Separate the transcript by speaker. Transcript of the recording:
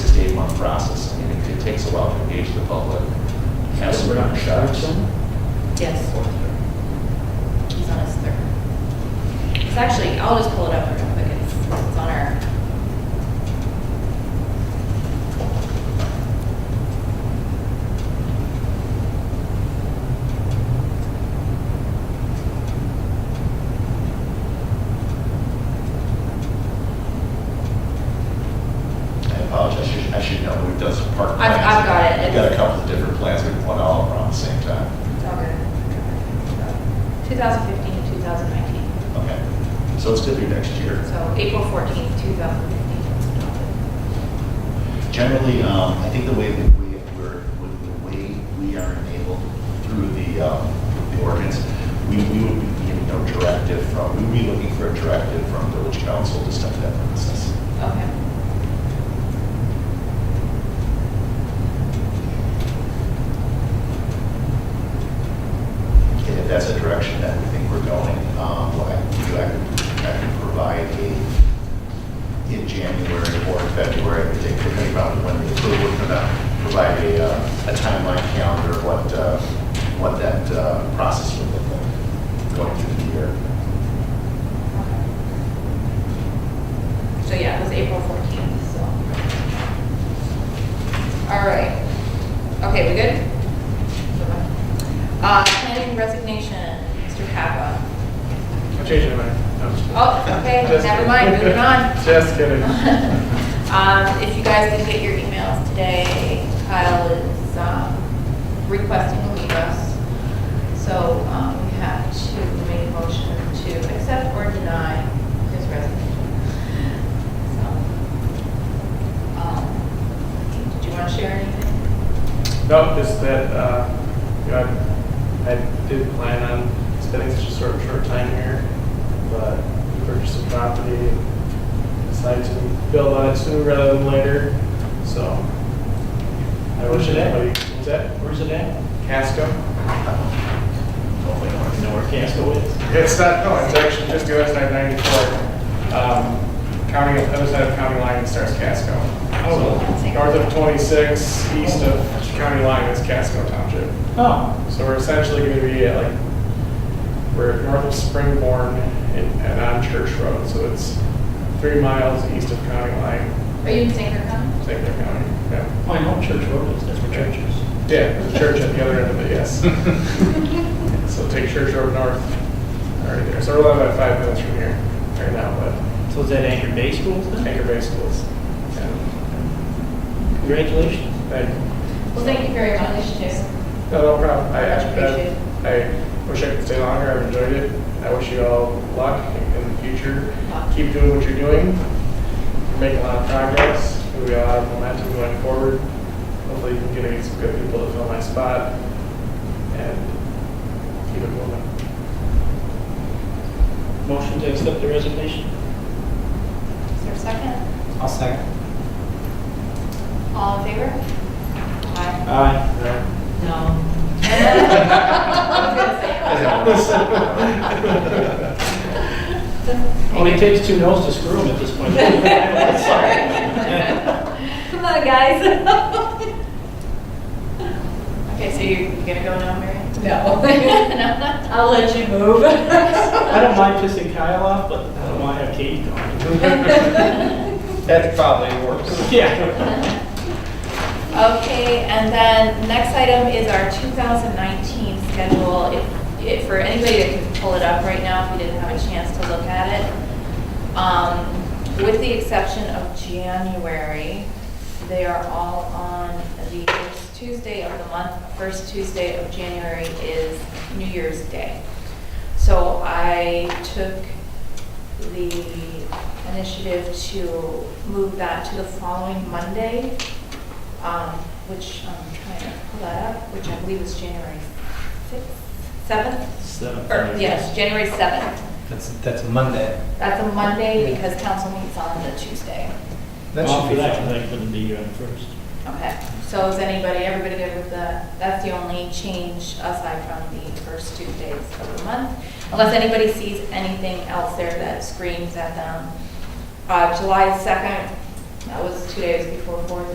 Speaker 1: process. I mean, it- it takes a while to engage the public. Have some-
Speaker 2: We're not charged them?
Speaker 3: Yes, he's on his third. It's actually, I'll just pull it up real quick. It's it's on our,
Speaker 1: I apologize, I should, I should know who does park
Speaker 3: I've-
Speaker 1: plans.
Speaker 3: I've got it.
Speaker 1: We've got a couple of different plans, we want all around the same time.
Speaker 3: it's all good. 2015 to 2019.
Speaker 1: Okay, so it's typically next year.
Speaker 3: So April 14th, 2015.
Speaker 1: Generally, um, I think the way that we, we're, with the way we are enabled through the, um, the ordinance, we, we would be getting no directive from, we would be looking for a directive from village council to start that process.
Speaker 3: Okay.
Speaker 1: And if that's a direction that we think we're going, um, what I, I could, I could provide a, in January or in February, I think, depending on when the approval, we're gonna provide a, uh, a timeline calendar, of what, uh, what that, uh, process would look like going through the year.
Speaker 3: So yeah, it was April 14th, so. All right. Okay, we good? Uh, Planning resignation, Mr. Kappa.
Speaker 4: I'm changing my mind. No, I'm just-
Speaker 3: Oh, okay,
Speaker 4: Just
Speaker 3: never
Speaker 4: kidding.
Speaker 3: mind, moving on.
Speaker 4: Just kidding.
Speaker 3: Um, If you guys didn't get your emails today, Kyle is um, requesting to leave us. So um, we have to make a motion to accept or deny his resignation. So, um, Did you want to share anything?
Speaker 4: No, just that, uh, you know, I, I did plan on spending such a short, short time here, but we purchased a property and decided to build on it sooner rather than later, so. I
Speaker 2: Where's
Speaker 4: wish
Speaker 2: it at?
Speaker 4: everybody, what's that?
Speaker 2: Where's it at?
Speaker 4: Casco?
Speaker 1: Hopefully,
Speaker 2: You know where Casco is?
Speaker 4: It's not, no, it's actually just US nine ninety-four, um, county, other side of county line, it starts Casco.
Speaker 2: Oh.
Speaker 4: So, North of twenty-six, east of county line is Casco Township.
Speaker 2: Oh,
Speaker 4: So we're essentially gonna be at like, we're north of Springborn and, and on Church Road, so it's three miles east of county line,
Speaker 3: Are you in Sanker County?
Speaker 4: St. Clair County, yeah.
Speaker 2: I know Church Road is, that's where Church is.
Speaker 4: Yeah, there's a church at the other end of it, yes. So take Church Road north, all right there. So we're only about five minutes from here, right now, but
Speaker 2: So is that Anchor Day Schools then?
Speaker 4: Anchor Bay Schools. And,
Speaker 2: Congratulations.
Speaker 4: thank you.
Speaker 3: Well, thank you very much. Yes.
Speaker 4: No, no problem. I actually,
Speaker 3: Appreciate
Speaker 4: I- I wish I could stay longer. I've enjoyed it. I wish you all luck in the future. Keep doing what you're doing. You're making a lot of progress. We all have momentum going forward. Hopefully you can get some good people to fill my spot and keep it moving.
Speaker 2: Motion to accept the resignation?
Speaker 3: Is there a second?
Speaker 2: I'll second.
Speaker 3: All in favor? Aye.
Speaker 2: Aye.
Speaker 3: No. I was
Speaker 1: Yeah.
Speaker 2: Only takes two no's to screw them at this point.
Speaker 3: gonna say. Come on, guys. Okay, so you're gonna go now, Mary? No. I'll let you move.
Speaker 2: I don't mind pissing Kyle off, but I don't want to have Katie going.
Speaker 5: That probably works.
Speaker 2: Yeah.
Speaker 3: Okay, and then next item is our 2019 schedule. If- If, for anybody that can pull it up right now, if you didn't have a chance to look at it. um, With the exception of January, they are all on the first Tuesday of the month. First Tuesday of January is New Year's Day. So I took the initiative to move that to the following Monday, um, which I'm trying to pull that up, which I believe is January 6th, 7th?
Speaker 2: So-
Speaker 3: Or, yes, January 7th.
Speaker 5: That's, that's Monday.
Speaker 3: That's a Monday because council meets on the Tuesday.
Speaker 5: That should
Speaker 2: After
Speaker 5: be
Speaker 2: that,
Speaker 5: fine.
Speaker 2: I couldn't be on first.
Speaker 3: Okay, so is anybody, everybody good with that? That's the only change aside from the first two days of the month, unless anybody sees anything else there that screams at them. Uh, July 2nd, that was two days before Fourth